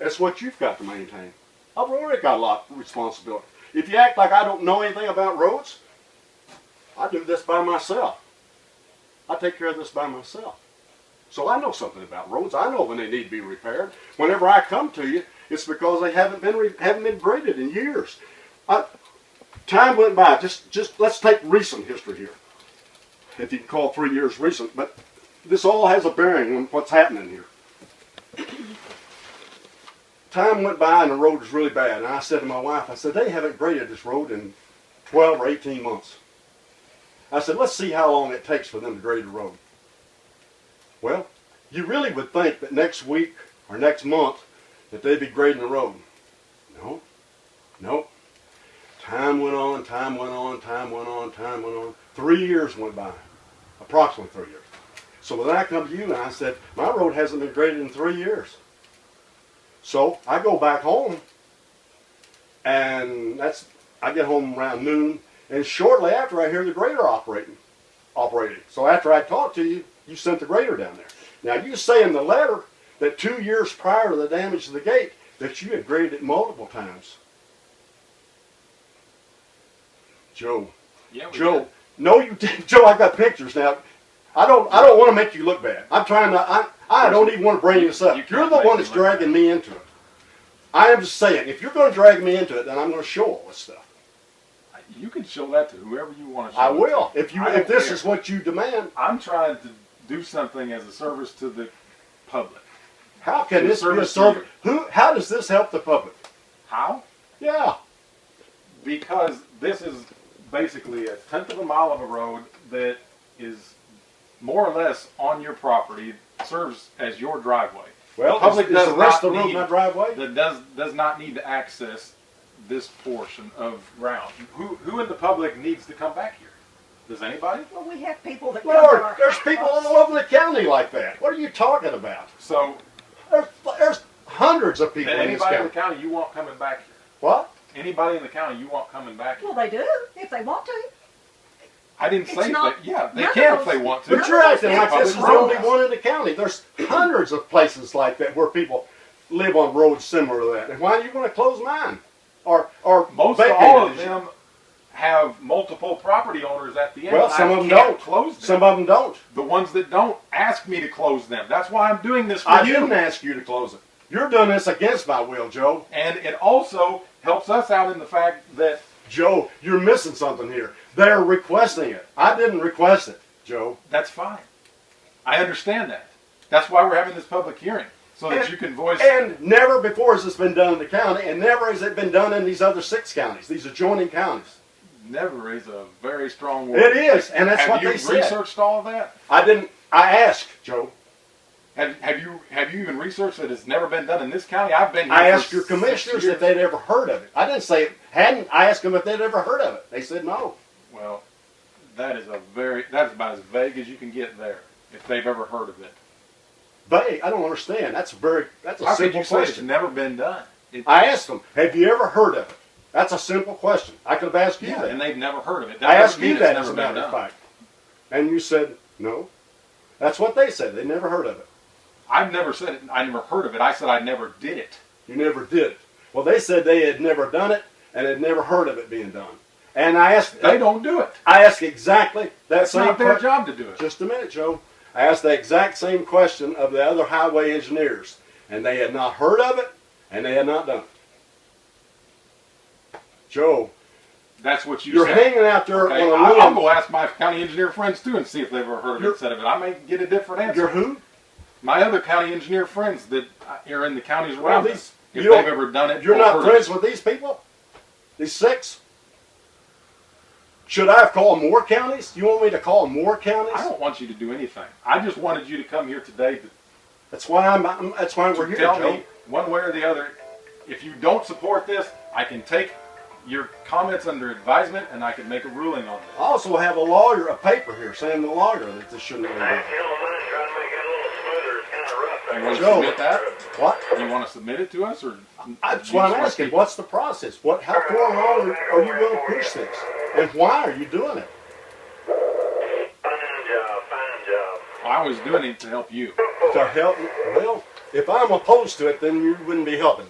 That's what you've got to maintain. I've already got a lot of responsibility. If you act like I don't know anything about roads, I do this by myself. I take care of this by myself. So I know something about roads. I know when they need to be repaired. Whenever I come to you, it's because they haven't been re- haven't been graded in years. I, time went by. Just just let's take recent history here, if you can call three years recent. But this all has a bearing on what's happening here. Time went by and the road was really bad. And I said to my wife, I said they haven't graded this road in 12 or 18 months. I said let's see how long it takes for them to grade the road. Well, you really would think that next week or next month that they'd be grading the road. No, no. Time went on, time went on, time went on, time went on. Three years went by, approximately three years. So then I come to you and I said, my road hasn't been graded in three years. So I go back home, and that's I get home around noon, and shortly after I hear the grader operating, operating. So after I talked to you, you sent the grader down there. Now you say in the letter that two years prior to the damage to the gate that you had graded it multiple times. Joe, Yeah, we Joe, did. no, you didn't. Joe, I've got pictures now. I don't. I don't want to make you look bad. I'm trying to. I. I don't even want to bring this up. You can't You're the make one me that's look dragging me into it. I am just saying, if you're going to drag me into it, then I'm going to show all this stuff. You can show that to whoever you want to show. I it to. will. If you. I If don't this care. is what you demand, I'm trying to do something as a service to the public. how can this be a Service to service? Who? How does this help the public? How? Yeah. Because this is basically a tenth of a mile of a road that is more or less on your property, serves as your driveway. Well, The public is, is the does rest of the not road need- my driveway? That does does not need to access this portion of ground. Who who in the public needs to come back here? Does anybody? Well, we have people that come Lord, to our there's people all over the county like that. What are you talking about? So There's, there's hundreds of people in this anybody in the county. county you want coming back here? What? Anybody in the county you want coming back Well, here? they do if they want to. I didn't It's say if not- they, yeah, they none of can if those- they want to. But you're acting like this is the only Public one in the county. There's hundreds of places like that where people live on roads similar to that. And why are you going to close mine? Or or Most vacate all it of as you- them have multiple property owners at the end. Well, and I some of them can't don't. Close them. Some of them don't. the ones that don't ask me to close them. That's why I'm doing this for I you. didn't ask you to close it. You're doing this against my will, Joe. And it also helps us out in the fact that Joe, you're missing something here. They're requesting it. I didn't request it, Joe. that's fine. I understand that. That's why we're having this public hearing so that And- you can voice. And never before has this been done in the county, and never has it been done in these other six counties, these adjoining counties. never is a very strong word. It is, and that's have what you they said. researched all that? I didn't. I asked, Joe. Have, have you have you even researched that it's never been done in this county? I've been. Here I for asked your six commissioners years. if they'd ever heard of it. I didn't say it hadn't. I asked them if they'd ever heard of it. They said no. Well, that is a very that's about as vague as you can get there. If they've ever heard of it, They, I don't understand. That's very. That's a how could simple you say it's question. never been done? It, I asked them, "Have you ever heard of it?" That's a simple question. I could have asked you yeah, that. and they've never heard of it. I doesn't asked mean you it's that never as a been matter of done. fact, and you said no. That's what they said. They never heard of it. I've never said it. I never heard of it. I said I never did it. You never did. Well, they said they had never done it and had never heard of it being done. And I asked. They don't do it. I asked exactly that That's same not their question. job to do it. Just a minute, Joe. I asked the exact same question of the other highway engineers, and they had not heard of it, and they had not done it. Joe, That's what you you are said. hanging out there Okay, on I, I'll a limb. go ask my county engineer friends too and see if they've ever heard of You're- it. Said of it. I may get a different answer. You're who? my other county engineer friends that are in the counties Well, around these- us, if you don't- they've ever done it, You're or not heard friends it. with these people? These six? Should I have called more counties? You want me to call more counties? I don't want you to do anything. I just wanted you to come here today to That's why I'm. I'm- that's why we're to here, tell Joe. me one way or the other. If you don't support this, I can take your comments under advisement and I can make a ruling on I this. also have a lawyer, a paper here saying the lawyer that this shouldn't have I been feel a minute trying to make it a little smoother. It's kind of rough You back want to Joe. submit that? done. What? You want to submit it to us, or That's what I'm asking. What's the process? What? How far along are you going to push this? And why are you doing it? Fine job, fine job. I was doing it to help you. To help? Well, If I'm opposed to it, then you wouldn't be helping.